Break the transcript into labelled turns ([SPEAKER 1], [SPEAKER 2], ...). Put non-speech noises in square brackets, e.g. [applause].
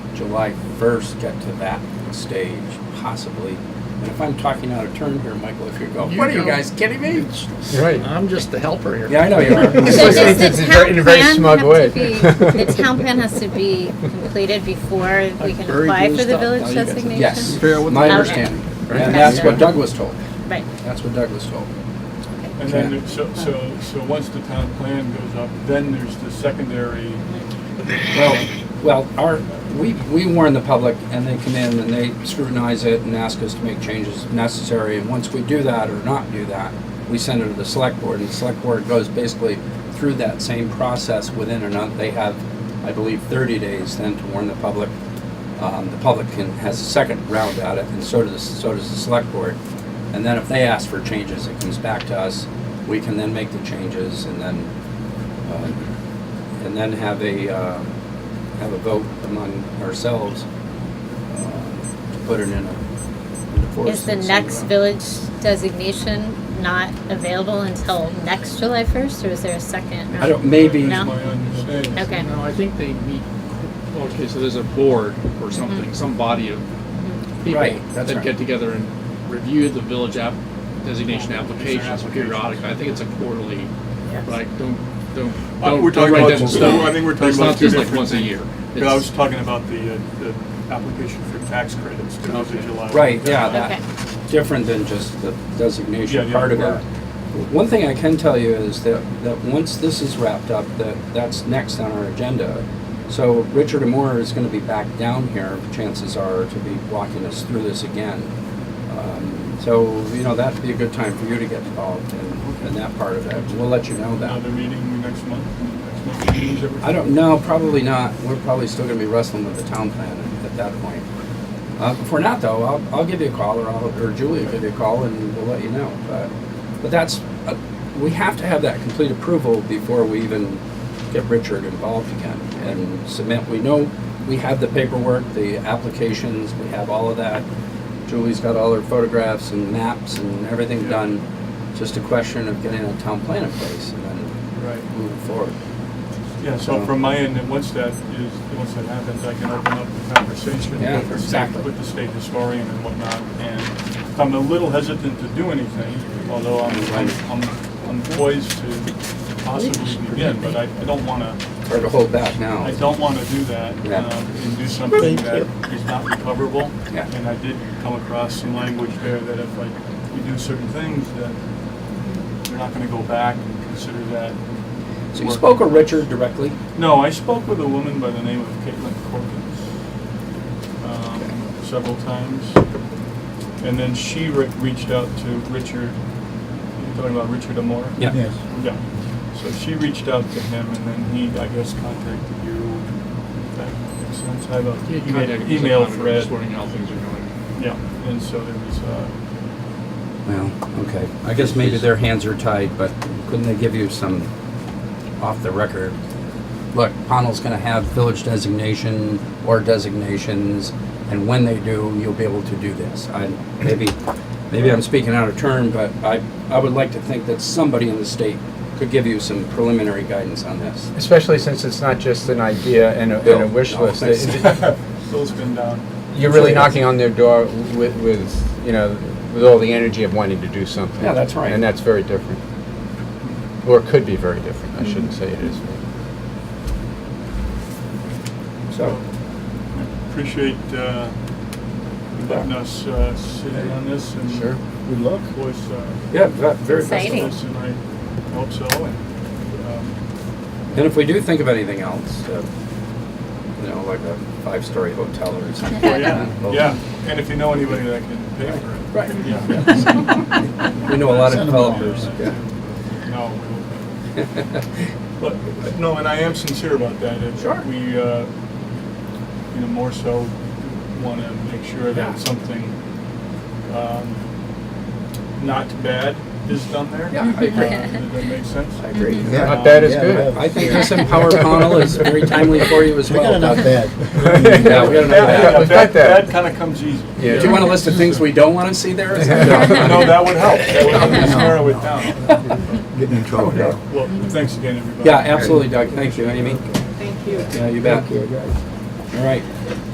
[SPEAKER 1] July 1st get to that stage, possibly. And if I'm talking out of turn here, Michael, if you're going,
[SPEAKER 2] You
[SPEAKER 1] what are you
[SPEAKER 2] go.
[SPEAKER 1] guys kidding me?
[SPEAKER 3] Right.
[SPEAKER 2] I'm just the helper here.
[SPEAKER 1] Yeah, I know you
[SPEAKER 4] [laughs] So
[SPEAKER 3] It's
[SPEAKER 1] are.
[SPEAKER 3] just-
[SPEAKER 4] does
[SPEAKER 3] it's
[SPEAKER 4] the
[SPEAKER 3] very-
[SPEAKER 4] town
[SPEAKER 3] in a very
[SPEAKER 4] plan
[SPEAKER 3] smug
[SPEAKER 4] have
[SPEAKER 3] way.
[SPEAKER 4] to be, the town plan has to be
[SPEAKER 2] [laughs]
[SPEAKER 4] completed before we
[SPEAKER 2] Like
[SPEAKER 4] can
[SPEAKER 2] very
[SPEAKER 4] apply
[SPEAKER 2] blue
[SPEAKER 4] for the
[SPEAKER 2] stuff.
[SPEAKER 4] village
[SPEAKER 2] Now you guys-
[SPEAKER 4] designation?
[SPEAKER 1] Yes,
[SPEAKER 2] Fair with
[SPEAKER 1] my
[SPEAKER 4] the-
[SPEAKER 1] understanding.
[SPEAKER 2] Right.
[SPEAKER 1] And that's what Doug was told.
[SPEAKER 4] Right,
[SPEAKER 1] That's what Doug was told.
[SPEAKER 5] And then, it- so, so, so once the town plan goes up, then there's the secondary,
[SPEAKER 1] Well, well, our, we, we warn the public and they come in and they scrutinize it and ask us to make changes if necessary. And once we do that or not do that, we send it to the select board and the select board goes basically through that same process within or not. They have, I believe, thirty days then to warn the public. Um, the public can, has a second round at it and so does, so does the select board. And then if they ask for changes, it comes back to us. We can then make the changes and then, uh, and then have a, uh, have a vote among ourselves uh, to put it in a. into force
[SPEAKER 4] is the
[SPEAKER 1] and send it
[SPEAKER 4] next
[SPEAKER 1] out.
[SPEAKER 4] village designation not available until next July first, or is there a second?
[SPEAKER 1] I don't, maybe,
[SPEAKER 4] No.
[SPEAKER 5] that's my understanding.
[SPEAKER 4] Okay.
[SPEAKER 2] No, I think they meet, okay, so there's a board or something, some body of people
[SPEAKER 1] Right, that's
[SPEAKER 2] that
[SPEAKER 1] right.
[SPEAKER 2] get together and review the village app, designation applications periodically. I think it's a quarterly, but I don't, don't,
[SPEAKER 5] Uh,
[SPEAKER 2] don't
[SPEAKER 5] we're
[SPEAKER 2] don't
[SPEAKER 5] talking
[SPEAKER 2] write
[SPEAKER 5] about
[SPEAKER 2] that in
[SPEAKER 5] two-
[SPEAKER 2] stone.
[SPEAKER 5] I think we're talking
[SPEAKER 2] It's
[SPEAKER 5] about
[SPEAKER 2] not
[SPEAKER 5] two
[SPEAKER 2] just like
[SPEAKER 5] different
[SPEAKER 2] once a
[SPEAKER 5] things.
[SPEAKER 2] year.
[SPEAKER 5] But I was
[SPEAKER 2] It's-
[SPEAKER 5] talking about the, uh, the application for tax credits to the
[SPEAKER 2] Okay.
[SPEAKER 5] July.
[SPEAKER 1] right, yeah,
[SPEAKER 4] Okay,
[SPEAKER 1] that, different than just the
[SPEAKER 5] Yeah,
[SPEAKER 1] designation
[SPEAKER 5] yeah,
[SPEAKER 1] part of
[SPEAKER 5] right.
[SPEAKER 1] it. One thing I can tell you is that, that once this is wrapped up, that, that's next on our agenda. So Richard Moore is gonna be back down here, chances are, to be walking us through this again. Um, So, you know, that'd be a good time for you to get involved in, in that part of it. We'll let you know that.
[SPEAKER 5] Another meeting next month, next month, meetings every-
[SPEAKER 1] I don't know, probably not. We're probably still gonna be wrestling with the town plan at- at that point. Uh, if we're not though, I'll, I'll give you a call or I'll, or Julie will give you a call and we'll let you know. But, but that's, uh, we have to have that complete approval before we even get Richard involved again and submit. We know, we have the paperwork, the applications, we have all of that. Julie's got all her photographs and maps and everything
[SPEAKER 5] Yeah.
[SPEAKER 1] done. Just a question of getting a town plan in place and then
[SPEAKER 5] Right.
[SPEAKER 1] moving forward.
[SPEAKER 5] Yeah, so from my end, and once that is, once that happens, I can open up the conversation
[SPEAKER 1] Yeah,
[SPEAKER 5] with the state,
[SPEAKER 1] exactly.
[SPEAKER 5] with the state historian and whatnot. And I'm a little hesitant to do anything, although I'm, I'm, I'm- I'm poised to possibly begin, but I, I don't wanna,
[SPEAKER 1] Hard to hold back now.
[SPEAKER 5] I don't wanna do that,
[SPEAKER 1] Yeah.
[SPEAKER 5] um, and do something that is not recoverable.
[SPEAKER 1] Yeah.
[SPEAKER 5] And I did come across some language there that if I, we do certain things, that we're not gonna go back and consider that
[SPEAKER 1] So you spoke with Richard directly?
[SPEAKER 5] No, I spoke with a woman by the name of Caitlin Corkins um, several times. And then she re- reached out to Richard, you're talking about Richard Amore?
[SPEAKER 1] Yes.
[SPEAKER 5] Yeah. So she reached out to him and then he, I guess, contacted you. That makes sense. I have
[SPEAKER 2] Yeah, you made a-
[SPEAKER 5] an email thread.
[SPEAKER 2] Just wondering how things are going.
[SPEAKER 5] Yeah, and so there was, uh,
[SPEAKER 1] Well, okay. I guess maybe their hands are tied, but couldn't they give you some off the record? Look, Pownell's gonna have village designation or designations, and when they do, you'll be able to do this. I, maybe, maybe I'm speaking out of turn, but I, I would like to think that somebody in the state could give you some preliminary guidance on this.
[SPEAKER 3] Especially since it's not just an idea and a, and a
[SPEAKER 1] Bill,
[SPEAKER 3] wish
[SPEAKER 1] no,
[SPEAKER 3] list.
[SPEAKER 1] thanks.
[SPEAKER 3] It-
[SPEAKER 1] [laughs]
[SPEAKER 5] Phil's been down.
[SPEAKER 3] You're really knocking on their door with, with, you know, with all the energy of wanting to do something.
[SPEAKER 1] Yeah, that's right.
[SPEAKER 3] And that's very different. Or it could be very different. I shouldn't say it is.
[SPEAKER 1] So,
[SPEAKER 5] Appreciate uh, you letting us uh, sit in on this and.
[SPEAKER 3] Sure.
[SPEAKER 5] Good luck. Was, uh,
[SPEAKER 1] yeah, ve- very
[SPEAKER 4] Exciting.
[SPEAKER 1] festive.
[SPEAKER 5] Yes, and I hope so. and, um,
[SPEAKER 1] And if we do think of anything else, uh, you know, like a five-story hotel or something. like [laughs]
[SPEAKER 5] um, well,
[SPEAKER 1] that,
[SPEAKER 5] Oh, Yeah,
[SPEAKER 1] we'll-
[SPEAKER 5] yeah, and if you know anybody that can pay for it.
[SPEAKER 1] Right.
[SPEAKER 5] Yeah.
[SPEAKER 1] [laughs] We know a lot of developers, yeah.
[SPEAKER 5] No, we don't. But, no, and I am sincere about that. It-
[SPEAKER 1] Sure.
[SPEAKER 5] We, uh, you know, more so want to make sure
[SPEAKER 1] Yeah.
[SPEAKER 5] that something um, not bad is done there.
[SPEAKER 1] Yeah, I agree.
[SPEAKER 5] Uh, Does that
[SPEAKER 1] [laughs]
[SPEAKER 5] make
[SPEAKER 1] [laughs]
[SPEAKER 5] sense?
[SPEAKER 1] I agree.
[SPEAKER 6] Yeah.
[SPEAKER 3] Not bad is
[SPEAKER 6] Mm-hmm. Yeah,
[SPEAKER 3] good.
[SPEAKER 1] I think this
[SPEAKER 6] [laughs]
[SPEAKER 1] Empower panel is very timely for you as
[SPEAKER 6] We got
[SPEAKER 1] well.
[SPEAKER 6] enough
[SPEAKER 1] Doug.
[SPEAKER 6] bad.
[SPEAKER 1] [laughs] Yeah, we got enough
[SPEAKER 3] Yeah,
[SPEAKER 1] bad.
[SPEAKER 3] we've got that.
[SPEAKER 5] kind of comes easy.
[SPEAKER 3] Yeah.
[SPEAKER 1] Do you want a list of things we don't want to see there? or something?
[SPEAKER 5] [laughs] No, that would help. That would help us narrow it down.
[SPEAKER 6] Getting in trouble now.
[SPEAKER 5] Well, thanks again, everybody.
[SPEAKER 1] Yeah, absolutely, Doug. Thank you, Amy.
[SPEAKER 4] thank you.
[SPEAKER 1] Yeah, you bet.
[SPEAKER 6] Okay, guys.
[SPEAKER 1] All right.